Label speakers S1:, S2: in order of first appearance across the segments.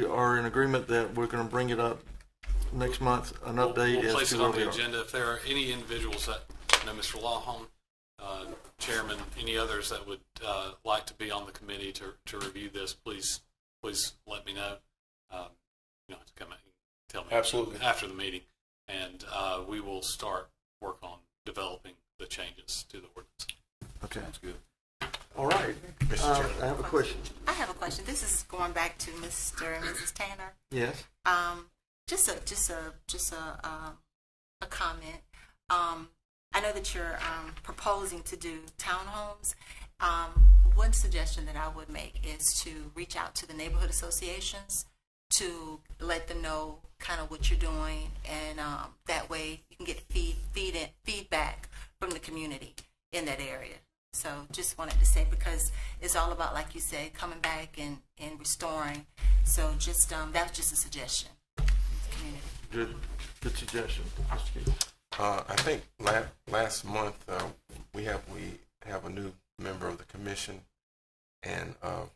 S1: We are in agreement that we're gonna bring it up next month, an
S2: We'll-
S1: update
S2: We'll
S1: as
S2: place
S1: to
S2: it
S1: where
S2: on
S1: we
S2: the
S1: are.
S2: agenda. If there are any individuals that, I know Mr. Lawhorn, uh, Chairman, any others that would uh, like to be on the committee to, to review this, please, please let me know. Um, You don't have to come out and tell me.
S3: Absolutely.
S2: After the meeting. And uh, we will start work on developing the changes to the ordinance.
S1: Okay.
S3: good.
S1: All right. Uh, I have a question.
S4: I have a question. This is going back to Mr. and Mrs. Tanner.
S1: Yes?
S4: Um, just a, just a, just a, um, a comment. Um, I know that you're, um, proposing to do townhomes. Um, one suggestion that I would make is to reach out to the neighborhood associations to let them know kind of what you're doing and, um, that way you can get feed, feed in, feedback from the community in that area. So just wanted to say, because it's all about, like you said, coming back and, and restoring. So just, um, that was just a suggestion. Community.
S1: Good, good suggestion.
S5: Uh, I think la- last month, uh, we have, we have a new member of the commission and, uh,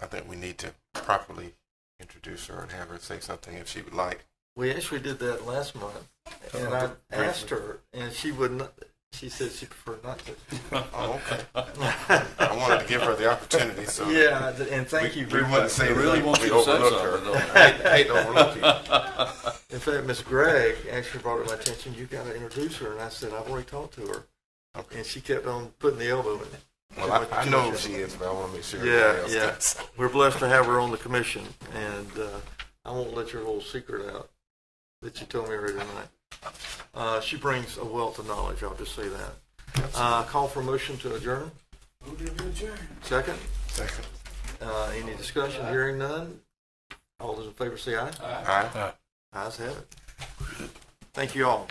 S5: I think we need to properly introduce her and have her say something if she would like.
S1: We actually did that last month, and I asked her, and she would not, she said she preferred not
S5: Oh, okay.
S1: to.
S5: I wanted to give her the opportunity, so.
S1: Yeah, and thank
S5: we-
S1: you very
S5: We wouldn't
S1: much.
S5: say
S3: They really want
S5: that we
S3: you to say
S5: overlooked
S3: something,
S5: her. Hate hate to overlook you.
S1: In fact, Miss Gregg actually brought it to my attention, you gotta introduce her, and I said, I've already talked to her.
S5: Okay.
S1: And she kept on putting the elbow in it.
S5: Well, I, I know who she is, but I want to make sure.
S1: Yeah,
S5: everybody
S1: yeah.
S5: else does.
S1: We're blessed to have her on the commission, and uh, I won't let your little secret out that you told me earlier tonight. Uh, She brings a wealth of knowledge, I'll just say that. Uh, Call for motion to adjourn? Second?
S5: Second.
S1: Uh, Any discussion? Hearing none? All those in favor say aye.
S5: All right.
S1: Ayes have it. Thank you all.